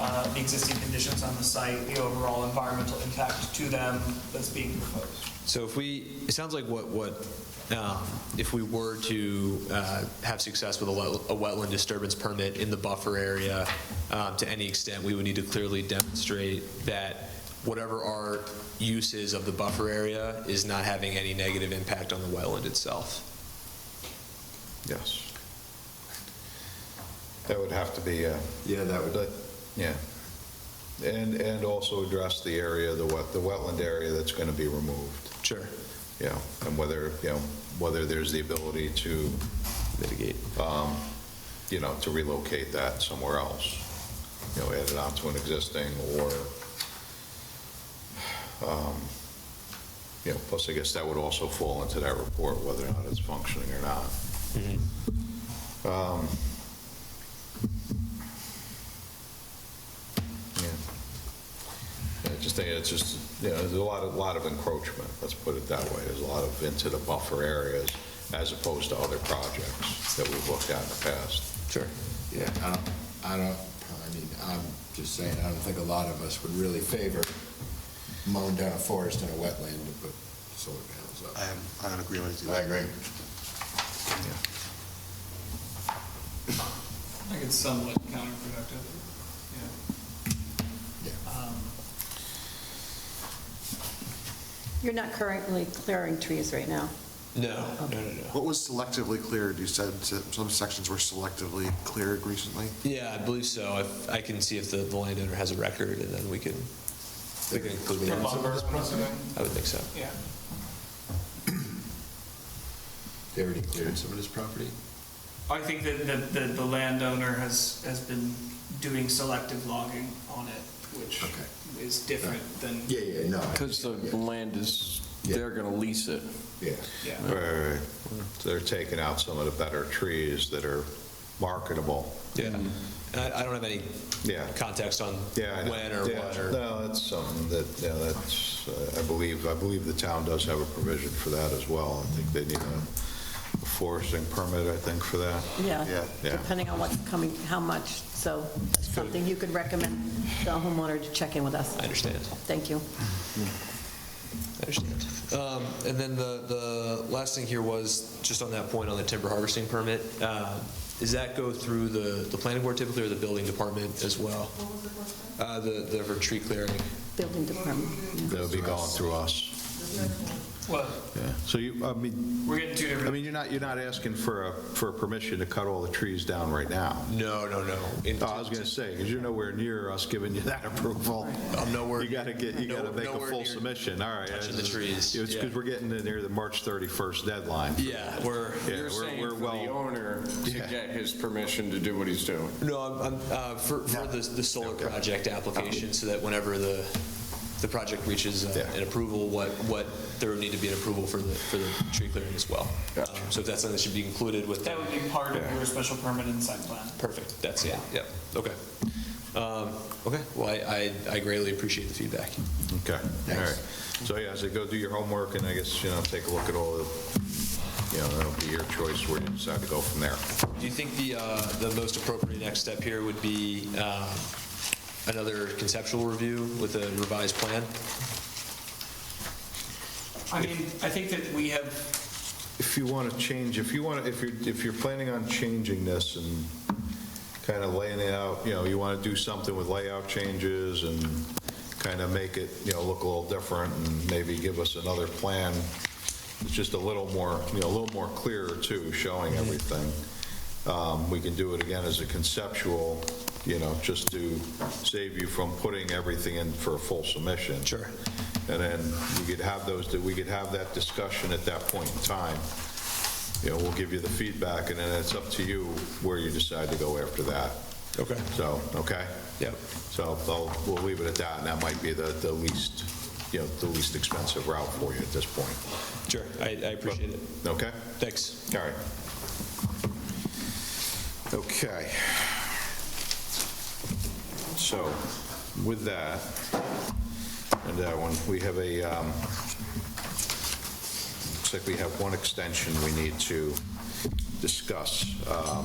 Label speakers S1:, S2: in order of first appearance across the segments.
S1: uh, the existing conditions on the site, the overall environmental impact to them that's being proposed.
S2: So if we, it sounds like what, what, um, if we were to uh, have success with a wet- a wetland disturbance permit in the buffer area, um, to any extent, we would need to clearly demonstrate that whatever our use is of the buffer area is not having any negative impact on the wetland itself.
S3: Yes. That would have to be, uh,
S4: Yeah, that would,
S3: that- yeah. And, and also address the area, the wet, the wetland area that's going to be removed,
S2: Sure.
S3: you know, and whether, you know, whether there's the ability to,
S2: Mitigate.
S3: you know, to relocate that somewhere else, you know, add it onto an existing or, um, you know, plus I guess that would also fall into that report, whether or not it's functioning or not. Um, yeah. I just think it's just, you know, there's a lot of, lot of encroachment, let's put it that way. There's a lot of into the buffer areas as opposed to other projects that we've looked at in the past.
S2: Sure.
S4: yeah, I don't, I don't, I mean, I'm just saying, I don't think a lot of us would really favor mowing down a forest and a wetland to put solar panels
S5: I
S4: up.
S5: am, I would agree with you.
S4: I agree.
S1: I think it's somewhat counterproductive, yeah.
S4: Yeah.
S1: Um,
S6: You're not currently clearing trees right now.
S2: No, no, no, no.
S5: What was selectively cleared? You said that some sections were selectively cleared recently?
S2: Yeah, I believe so. If- I can see if the the landowner has a record, and then we can, we can include
S1: For
S2: it.
S1: lumber, I'm assuming,
S2: I would think so.
S1: yeah.
S4: They already cleared some of this property?
S1: I think that the, the, the landowner has, has been doing selective logging on it, which
S4: Okay.
S1: is different than,
S4: Yeah, yeah, no. I-
S7: Because the land is, they're going to lease it.
S4: uh, Yeah.
S1: yeah.
S3: Right, So they're taking out some of the better trees that are marketable.
S2: Yeah. And I I don't have any
S3: Yeah.
S2: context on
S3: Yeah. I know.
S2: when or
S3: Yeah,
S2: what or,
S3: No, that's something that, yeah, that's, uh, I believe, I believe the town does have a provision for that as well. I think they need a foresting permit, I think, for that.
S6: Yeah.
S3: Yeah.
S6: Depending on what's coming, how much, so that's something you could recommend the homeowner to check in with us.
S2: I understand,
S6: Thank you.
S2: I understand. Um, And then the, the last thing here was, just on that point on the timber harvesting permit, uh, does that go through the, the planning board typically or the building department as well? Uh, The, the for tree clearing.
S6: Building department. yeah.
S3: That'll be going through us.
S1: Well,
S3: Yeah. So you, I mean,
S1: we're getting two
S3: I
S1: different,
S3: mean, you're not, you're not asking for a, for permission to cut all the trees down right now.
S2: No, no, no. In-
S3: Oh, I was going to say, because you're nowhere near us giving you that approval.
S2: I'm nowhere-
S3: You got to get, you got to
S2: No-
S3: make a
S2: nowhere
S3: full
S2: near
S3: submission, all right.
S2: touching the trees,
S3: It's
S2: yeah.
S3: because we're getting to near the March 31st deadline.
S2: Yeah, we're,
S3: Yeah,
S7: You're
S3: we're-
S7: saying
S3: we're
S7: for the
S3: well-
S7: owner to
S3: Yeah.
S7: get his permission to do what he's doing.
S2: No, I'm, I'm, uh, for, for the, the solar project application, so that whenever the, the project reaches uh,
S3: Yeah.
S2: an approval, what, what, there would need to be an approval for the, for the tree clearing as well.
S7: Gotcha.
S2: Um, So if that's something that should be included with.
S1: that would be part of your special permit and site plan.
S2: Perfect, that's it, yep, okay. Um, Okay, well, I, I I greatly appreciate the feedback.
S3: Okay, all right. So, yeah, so go do your homework, and I guess, you know, take a look at all the, you know, that'll be your choice where you decide to go from there.
S2: Do you think the, uh, the most appropriate next step here would be um, another conceptual review with a revised plan?
S1: I mean, I think that we have
S3: If you want to change, if you want, to, if you're, if you're planning on changing this and kind of laying it out, you know, you want to do something with layout changes and kind of make it, you know, look a little different, and maybe give us another plan that's just a little more, you know, a little more clear, too, showing everything. Um, We can do it again as a conceptual, you know, just to save you from putting everything in for a full submission.
S2: Sure.
S3: And then we could have those, that we could have that discussion at that point in time. You know, we'll give you the feedback, and then it's up to you where you decide to go after that.
S2: Okay.
S3: So, okay?
S2: Yep,
S3: So I'll- we'll leave it at that, and that might be the the least, you know, the least expensive route for you at this point.
S2: sure, I, I appreciate it,
S3: Okay?
S2: thanks.
S3: All right. Okay. So with that, and that one, we have a, um, looks like we have one extension we need to discuss. Uh,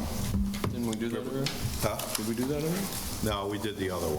S7: Didn't we do that already?
S3: huh?
S7: Did we do that already?
S3: No, we did the other one.